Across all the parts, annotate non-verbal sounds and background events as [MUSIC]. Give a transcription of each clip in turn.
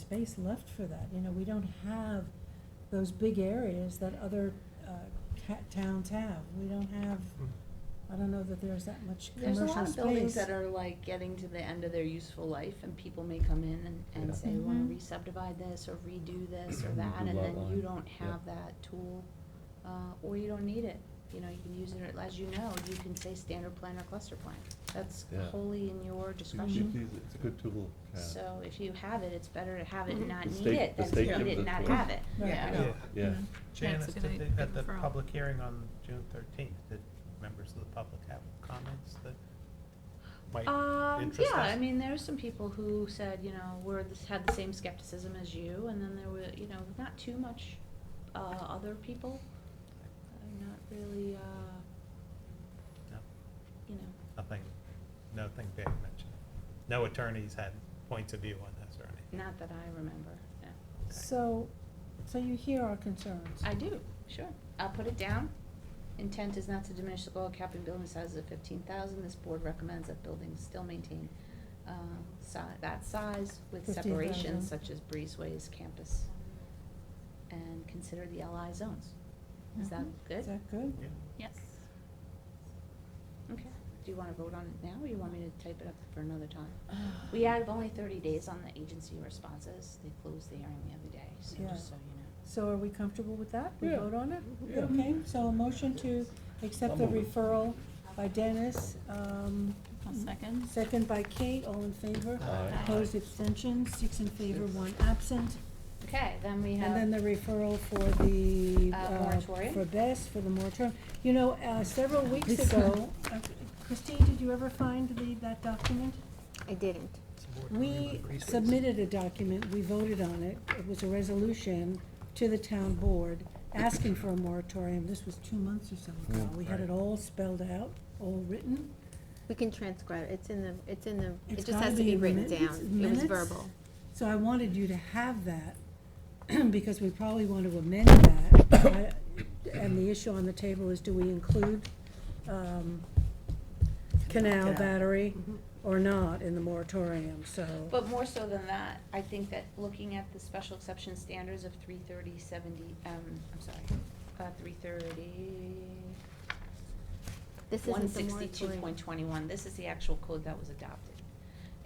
space left for that. You know, we don't have those big areas that other uh, ca- towns have. We don't have, I don't know that there's that much commercial space. There's a lot of buildings that are like getting to the end of their useful life and people may come in and, Yeah. and say, we wanna Mhm. re-subdivide this or redo this or that, Redo and Mm-hmm. lot then you line, don't yeah. have that tool. Uh, or you don't need it, you know, you can use it, as you know, you can say standard plan or cluster plan, that's Yeah. wholly in your It's a discretion. good- it's a good tool, yeah. So if you have it, it's better to have it and not The need state- it the than state to need gives it it and not to us. have it, Mm-hmm. Right. Yeah. Yeah. Yeah, Jan, That's at a the, good thi- at the referral. public hearing on June thirteenth, did members of the public have comments that might Um, interest us? yeah, I mean, there are some people who said, you know, were, this- had the same skepticism as you, and then there were, you know, not too much, uh, other people. Uh, Not really, uh, No, you know, Nothing, nothing big mentioned. No attorneys had points of view on this or anything. not that I remember, no. Okay. So, so you hear our concerns. I do, sure. I'll put it down. Intent is not to diminish the goal of capping building sizes at fifteen thousand. This board recommends that buildings still maintain, uh, si- that size with 15,000. separations such as breezeways, campus. And consider the LI zones. Is that Mhm. good? Is that good? Yeah. Yes. Okay. Do you wanna vote on it now, or you want me to type it up for [SIGHS] another time? We have only thirty days on the agency responses. They closed the hearing the other day, so Yeah. just so you know. So are we comfortable with that? We Yeah. vote on it? Yeah. Mm-hmm. Okay, so a motion to accept the I'll move it. referral by Dennis, um, I'll second. second by Kate, all in favor? Aye. Opposed, abstentions, six in favor, one absent. Okay, then we have. And then the referral for the, Uh, uh, moratorium? for best, for the moratorium. You know, uh, several weeks This ago, uh, Christine, did you ever find the, that document? I didn't. We submitted a document, we voted on it, it was a resolution to the town board asking for a moratorium, this was two months or so ago. Yeah. We had it Right. all spelled out, all written. We can transcribe, it. it's in the, it's in the, It's it just gotta has to be in written minutes- down. It was minutes. verbal. So I wanted you to have that, [CLEARS THROAT] because we probably want to amend that. I- And the issue on the table is, do we include um, canal Canal. battery or not in the moratorium, so. But more so than that, I think that looking at the special exception standards of three thirty seventy, um, I'm sorry, uh, three thirty. This isn't the One sixty-two point moratorium. twenty-one, this is the actual code that was adopted.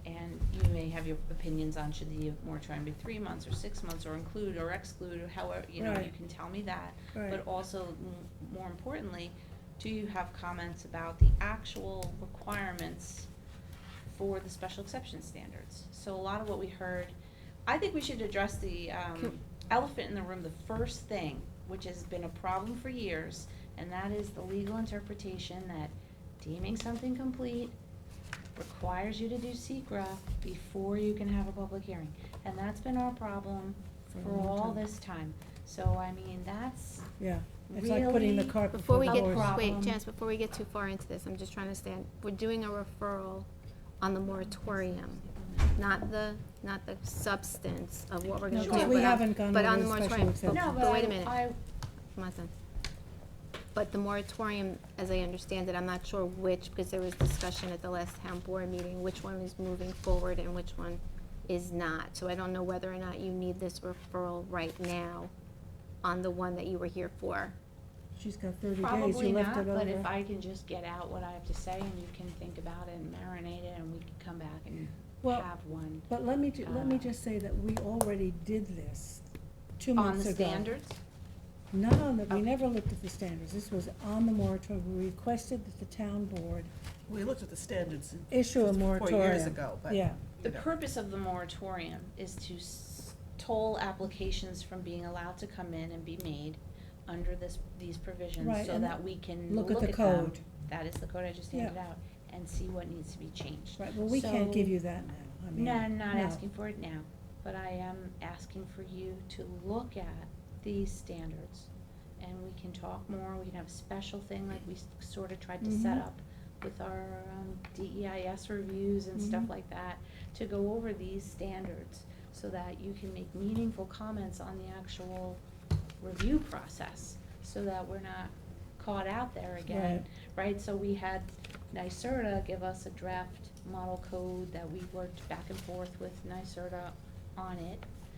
And you may have your opinions on should the moratorium be three months or six months or include or exclude or however, you know, you Right. can tell me that. Right. But also, m- more importantly, do you have comments about the actual requirements for the special exception standards? So a lot of what we heard, I think we should address the um, Can- elephant in the room, the first thing, which has been a problem for years, and that is the legal interpretation that deeming something complete requires you to do secra before you can have a public hearing. And that's been our problem For a for long all time. this time. So, I mean, that's, Yeah, it's like putting the Really? cart before Before we the get, Our horse. wait, problem. Janice, before we get too far into this, I'm just trying to stand, we're doing a referral on the moratorium, not the, not the substance of what we're No, gonna do. 'cause we but on- haven't gone but over on the the special moratorium. exception. no, But but wait a I- minute. I, My son. But the moratorium, as I understand it, I'm not sure which, because there was discussion at the last town board meeting, which one is moving forward and which one is not. So I don't know whether or not you need this referral right now on the one that you were here for. She's got thirty days, Probably you left it not, but over. if I can just get out what I have to say and you can think about it and marinate it and we can come back and Well, have one. But let me, ju- let me Uh, just say that we already did this two On months the ago. standards? Not on the, we Okay. never looked at the standards, this was on the moratorium, we requested that the town board We looked at the standards. issue a Four moratorium. years ago, but. Yeah, The you know. purpose of the moratorium is to s- toll applications from being allowed to come in and be made under this, these Right, provisions so and that we can look look at at the them. code. That is the code I just Yeah. handed out and see what needs to be changed. right, well, we can't So- give you that now, I mean. No, I'm not no. asking for it now, but I am asking for you to look at these standards. And we can talk more, we can have a special thing like we sort of tried to set Mhm. up with our um, DEIS reviews and stuff Mhm. like that, to go over these standards so that you can make meaningful comments on the actual review process, so that we're not caught out there again right? So we had NYSERDA give us a draft model code that we worked back and forth with NYSERDA on it.